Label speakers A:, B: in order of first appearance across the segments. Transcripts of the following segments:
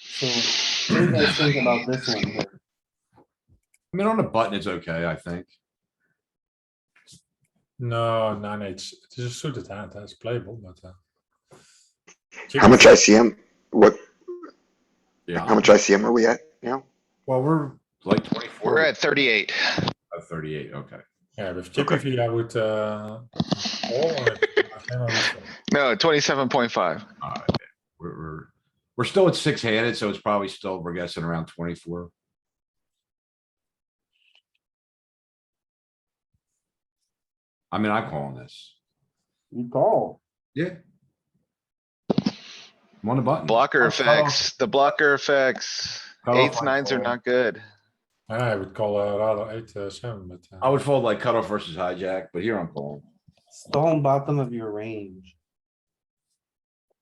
A: So what do you guys think about this one here?
B: I mean, on a button, it's okay, I think.
C: No, nine eight. s- It is a suited hand. huh? It's playable, but. Uh,
D: How much ICM? What? How
B: Yeah,
D: much ICM are we at now?
C: Well, we're
B: like twenty-four.
E: We're at thirty-eight.
B: Uh, Thirty-eight, okay.
C: yeah with Chippy V. I would. Uh, call, or if I can, I would call.
E: No, twenty-seven point five.
B: All right. We're, we're, we're still at six-handed, so it's probably still, we're guessing around twenty-four. I mean, I'm calling this.
A: You call.
B: Yeah. I'm on the button.
E: Blocker
B: I'll cut off-
E: effects, the blocker effects.
B: cut off
E: Eights,
B: my
E: nines are
B: call.
E: not good.
C: I would call uh, rather eight uh, seven, but. Uh,
B: I would fold like cutoff versus hijack, but here I'm calling.
A: Stone bottom of your range.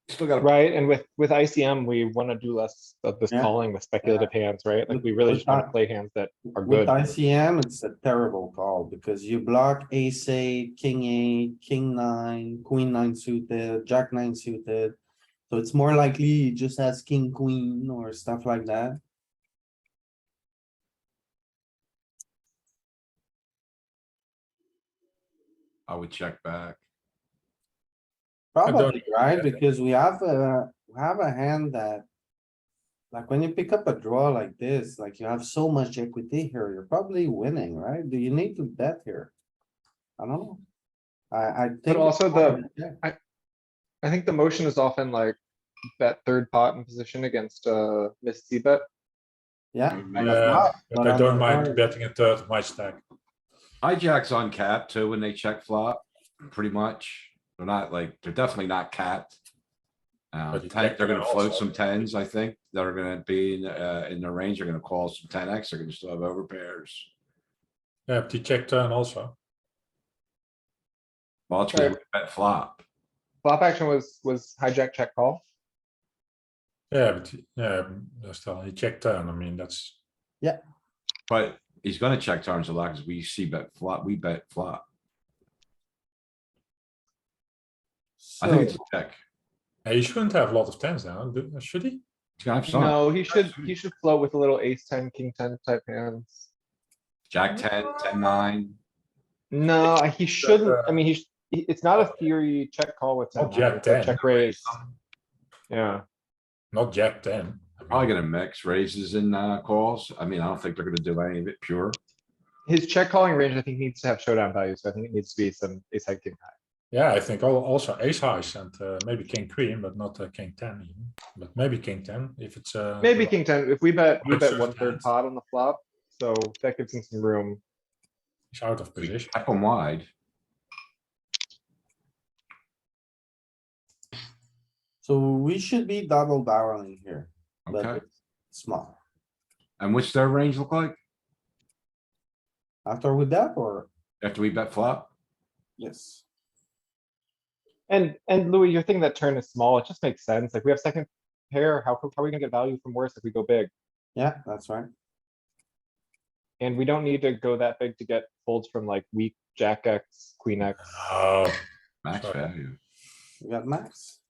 B: Still got,
F: Right, and with, with ICM, we wanna do less of this
A: Yeah.
F: calling with speculative hands, right? Like,
A: With-
F: we really
A: with
F: just wanna
A: that-
F: play hands that are
A: With
F: good.
A: ICM, it's a terrible call because you block ace eight, king eight, king nine, queen nine suited, jack nine suited. So it's more likely he just has king, queen or stuff like that.
B: I would check back.
C: don't-
A: Probably, right?
C: yeah.
A: Because we have a, we have a hand that. Like when you pick up a draw like this, like you have so much equity here, you're probably winning, right? Do you need to bet here? I don't know. I, I think. it's
F: also the-
A: yeah,
F: I think the motion is often like bet third pot in position against, uh, miss C bet.
A: Yeah.
B: uh,
C: yeah, but I
A: I'm
C: don't mind
A: sorry.
C: betting a third of my stack.
B: Hijack's on cap too when they check flop, pretty much. They're not like, they're definitely not capped. Uh,
C: But you
B: ten-
C: check
B: they're gonna
C: them
B: float
C: also.
B: some tens, I think, that are gonna be in, uh, in the range, they're gonna call some ten X, they're gonna still have overpairs.
C: Yeah, but you check turn also.
B: Well, it's gonna
F: Right.
B: be bet flop.
F: Flop action was, was hijack check call.
C: Yeah, but yeah, mm, still you check turn. I mean that's
B: But he's gonna check turns a lot because we see bet flop, we bet flop. I think it's a
A: So,
B: check.
C: yeah, he shouldn't have a lot of tens now, do- should he?
B: He's gonna have some.
F: No, he should, he should float with a little ace ten, king ten type hands.
B: Jack ten, ten nine.
F: No, he shouldn't,
C: uh,
F: I mean, he, sh- he- it's not a theory check call with. 10,
C: Not jack
F: right?
C: 10.
F: Check raise. Yeah.
C: Not jack ten.
B: Probably gonna mix raises and, uh, calls. I mean, I don't think they're gonna do any of it pure.
F: His check calling range, I think, needs to have showdown value, so I think it needs to be some ace high king high.
C: Yeah, I think al- also ace highs and uh, maybe king queen, but not uh, king ten even. But maybe king ten if it's uh,
F: Maybe king ten, if we bet, we
C: Good
F: bet
C: serve
F: one third
C: hands.
F: pot on the flop, so that gives him some room.
C: it's out of
B: We
C: position.
B: Check them wide.
A: so we should be double barreling here,
B: Okay,
A: but small.
B: and what's their range look like
A: After with that or?
B: after we bet flop?
A: Yes.
F: And, and Louis, your thing that turn is small, it just makes sense, like, we have second pair, how, co- how are we gonna get value from worse if we go big?
A: Yeah, that's right.
F: And we don't need to go that big to get folds from like weak jack X, queen X.
C: Oh,
B: Max
C: Sorry.
B: value.
A: We got max.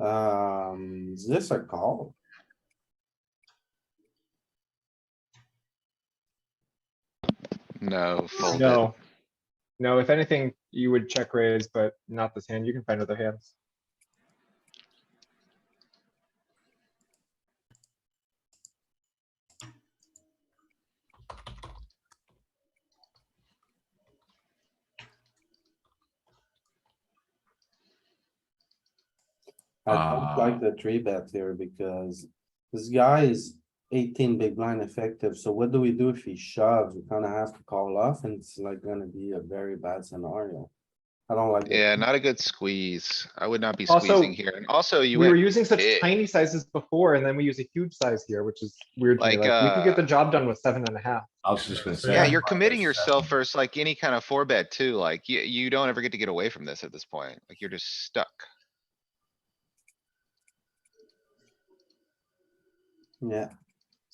A: Um, is this a call?
E: No, fold it.
F: No. No, if anything, you would check raise, but not this hand, you can find other hands.
A: I don't like the three bet here because this guy is eighteen big blind effective, so what do we do if he shoves? We kinda have to call off and it's like gonna be a very bad scenario. I don't like. it.
E: Yeah, not a good squeeze. I would not be
F: Also,
E: squeezing here. And also
F: We
E: you
F: were
E: went,
F: using such
E: big.
F: tiny sizes before, and then we use a huge size here, which is weird to me,
E: Like,
F: like, we could get
E: uh,
F: the job done with seven and a half.
B: I was just gonna say.
E: yeah,
C: Yeah.
E: you're committing
F: uh,
E: yourself versus like any kind of four bet too. Like you, you don't ever get to get away from this at this point. Like you're just stuck.
A: Yeah,